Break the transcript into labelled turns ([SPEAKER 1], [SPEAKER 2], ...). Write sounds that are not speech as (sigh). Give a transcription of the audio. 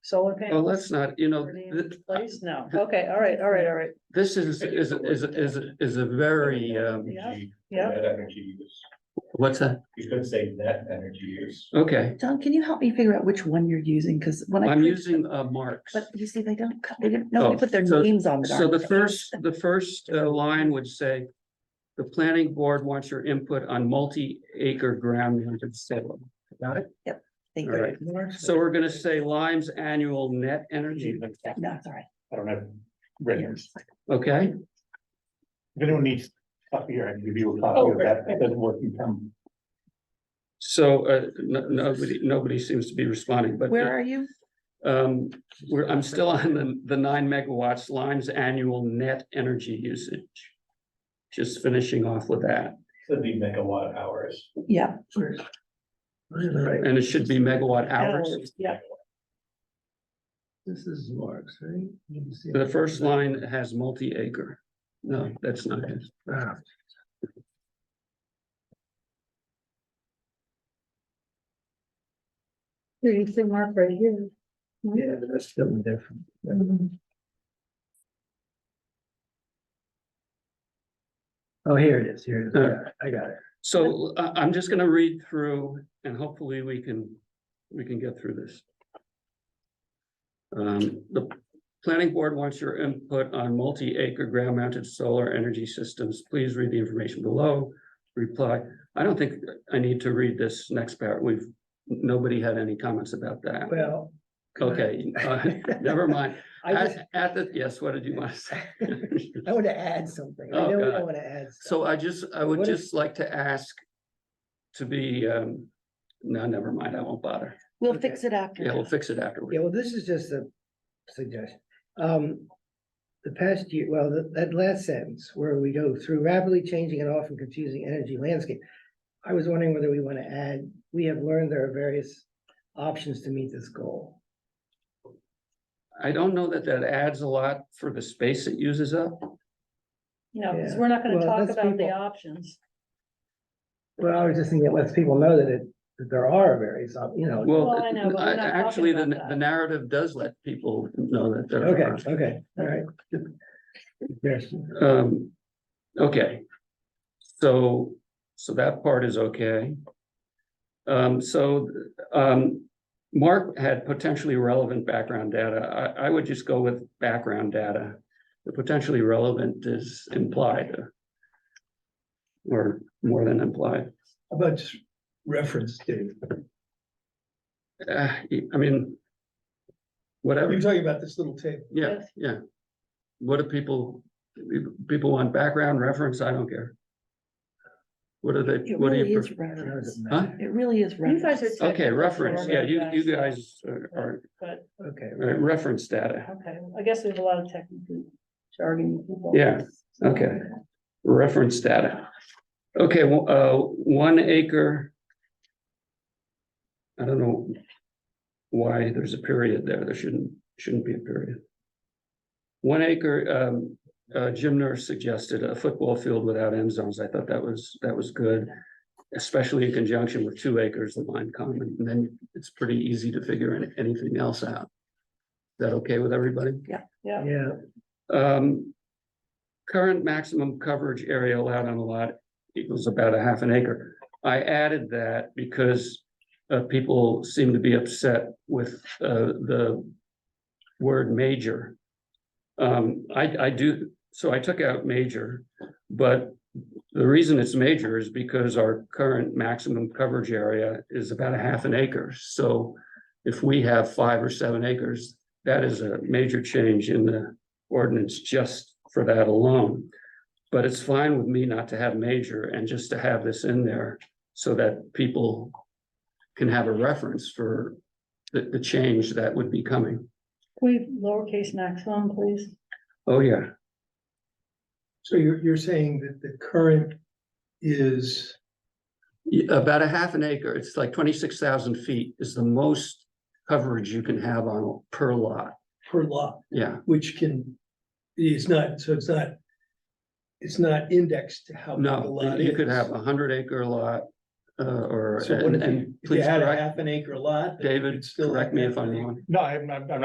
[SPEAKER 1] solar
[SPEAKER 2] Well,
[SPEAKER 1] panels?
[SPEAKER 2] let's not, you know, uh,
[SPEAKER 1] already in
[SPEAKER 2] th-
[SPEAKER 1] Place, no, okay, all right, all right, all right,
[SPEAKER 2] this is, is, is, is, is a very, um,
[SPEAKER 1] Yeah.
[SPEAKER 3] Energy-
[SPEAKER 1] yeah,
[SPEAKER 3] Net energy use.
[SPEAKER 2] what's that?
[SPEAKER 3] You could say net energy use.
[SPEAKER 2] Okay,
[SPEAKER 4] Don, can you help me figure out which one you're using? Cause when I.
[SPEAKER 2] I'm
[SPEAKER 4] clicked-
[SPEAKER 2] using, uh, marks.
[SPEAKER 4] But you see, they don't, co- they didn't, no,
[SPEAKER 2] Oh,
[SPEAKER 4] they put their
[SPEAKER 2] so-
[SPEAKER 4] names on. it,
[SPEAKER 2] So the
[SPEAKER 4] aren't they?
[SPEAKER 2] first, the first uh, line would say, the planning board wants your input on multi-acre ground mounted solar. Got it?
[SPEAKER 4] Thank
[SPEAKER 2] all
[SPEAKER 4] you.
[SPEAKER 2] right. So we're gonna say Lime's annual net energy,
[SPEAKER 4] No, it's all right.
[SPEAKER 3] I don't have
[SPEAKER 2] okay?
[SPEAKER 3] If anyone needs copy here, I can give you a
[SPEAKER 1] copy of
[SPEAKER 3] that. That doesn't work. You come.
[SPEAKER 2] So, uh, no, nobody, nobody seems to be responding, but.
[SPEAKER 4] Where are you?
[SPEAKER 2] Um, we're, I'm still on the, the nine megawatts Lime's annual net energy usage. Just finishing off with that,
[SPEAKER 3] It'd be megawatt hours.
[SPEAKER 4] Yeah.
[SPEAKER 5] Right,
[SPEAKER 2] and it should be megawatt hours.
[SPEAKER 1] hours, yeah,
[SPEAKER 5] this is Mark's, right? Let me see.
[SPEAKER 2] The first line has multi-acre. No, that's not it.
[SPEAKER 5] Ah,
[SPEAKER 1] Here, you see mark right here.
[SPEAKER 5] Yeah, that's something different. Oh, here it is, here it is. I got it, I got it.
[SPEAKER 2] So I, I'm just gonna read through and hopefully we can, we can get through this. Um, the planning board wants your input on multi-acre ground mounted solar energy systems. Please read the information below. Reply. I don't think I need to read this next paragraph. We've, nobody had any comments about that.
[SPEAKER 5] Well. (laughs)
[SPEAKER 2] Okay, uh, (laughs) never mind.
[SPEAKER 5] I just,
[SPEAKER 2] At, at the, yes, what did you want to say?
[SPEAKER 5] (laughs) I want to add something.
[SPEAKER 2] Oh,
[SPEAKER 5] I know we
[SPEAKER 2] God.
[SPEAKER 5] don't want to add.
[SPEAKER 2] So I just, I would
[SPEAKER 5] What if-
[SPEAKER 2] just like to ask to be, um, no, never mind, I won't bother.
[SPEAKER 4] We'll fix it after.
[SPEAKER 2] Yeah, we'll fix it
[SPEAKER 5] Yeah,
[SPEAKER 2] afterward.
[SPEAKER 5] well, this is just a suggestion. Um, the past year, well, that, that last sentence where we go through rapidly changing and often confusing energy landscape. I was wondering whether we want to add, we have learned there are various options to meet this goal.
[SPEAKER 2] I don't know that that adds a lot for the space it uses up.
[SPEAKER 1] No, because
[SPEAKER 5] Yeah.
[SPEAKER 1] we're not gonna
[SPEAKER 5] Well,
[SPEAKER 1] talk
[SPEAKER 5] that's
[SPEAKER 1] about the
[SPEAKER 5] people-
[SPEAKER 1] options.
[SPEAKER 5] Well, I was just thinking it lets people know that it, that there are various, op- you know.
[SPEAKER 2] Well,
[SPEAKER 1] Well, I know, but we're
[SPEAKER 2] I-
[SPEAKER 1] not talking
[SPEAKER 2] actually, the,
[SPEAKER 1] about that.
[SPEAKER 2] the narrative does let people know that there
[SPEAKER 5] Okay,
[SPEAKER 2] are.
[SPEAKER 5] okay, all right. Yes,
[SPEAKER 2] Um, okay. So, so that part is okay. Um, so, um, Mark had potentially relevant background data. I, I would just go with background data. The potentially relevant is implied. uh, Or more than implied.
[SPEAKER 5] How about just reference to,
[SPEAKER 2] Uh, I mean. Whatever,
[SPEAKER 5] talking about this little table.
[SPEAKER 2] yeah, yeah. What do people, people want background reference? I don't care. What do they,
[SPEAKER 4] It
[SPEAKER 2] what do
[SPEAKER 4] really
[SPEAKER 2] you? prefer?
[SPEAKER 4] is reference.
[SPEAKER 2] Huh?
[SPEAKER 4] It really is
[SPEAKER 1] You guys
[SPEAKER 4] reference.
[SPEAKER 1] are.
[SPEAKER 2] Okay,
[SPEAKER 1] technical
[SPEAKER 2] reference, yeah, you, you
[SPEAKER 1] so-
[SPEAKER 2] guys are, are-
[SPEAKER 1] But,
[SPEAKER 5] Okay,
[SPEAKER 2] are uh, reference data,
[SPEAKER 1] okay, I guess there's a lot of technical jargon. people.
[SPEAKER 2] Yeah, okay, reference data. Okay, well, uh, one acre. I don't know why there's a period there, there shouldn't, shouldn't be a period. One acre, um, uh, Jim Nurse suggested a football field without end zones, I thought that was, that was good. Especially in conjunction with two acres of line common, and then it's pretty easy to figure an- anything else out. Is That okay with everybody?
[SPEAKER 1] Yeah,
[SPEAKER 5] yeah,
[SPEAKER 2] Um. Current maximum coverage area allowed on a lot equals about a half an acre. I added that because. Uh, people seem to be upset with, uh, the. Word major. Um, I, I do, so I took out major, but. The reason it's major is because our current maximum coverage area is about a half an acre, so. If we have five or seven acres, that is a major change in the ordinance just for that alone. But it's fine with me not to have major and just to have this in there so that people can have a reference for the, the change that would be coming.
[SPEAKER 1] Can we lowercase maximum, please?
[SPEAKER 2] Oh, yeah,
[SPEAKER 6] So you're, you're saying that the current is,
[SPEAKER 2] Y- about a half an acre, it's like twenty-six thousand feet is the most coverage you can have on per lot,
[SPEAKER 6] per lot,
[SPEAKER 2] yeah.
[SPEAKER 6] which can, it's not, so it's not, it's not indexed to how big the
[SPEAKER 2] No,
[SPEAKER 6] lot is.
[SPEAKER 2] you could have a hundred acre lot, uh, or,
[SPEAKER 6] So what
[SPEAKER 2] and,
[SPEAKER 6] if you,
[SPEAKER 2] and
[SPEAKER 6] if you
[SPEAKER 2] please
[SPEAKER 6] had a
[SPEAKER 2] correct,
[SPEAKER 6] half an acre lot? then
[SPEAKER 2] David,
[SPEAKER 6] it's still
[SPEAKER 2] correct me if
[SPEAKER 6] half
[SPEAKER 2] I'm
[SPEAKER 6] an acre.
[SPEAKER 2] wrong.
[SPEAKER 3] No, I'm, I'm, I'm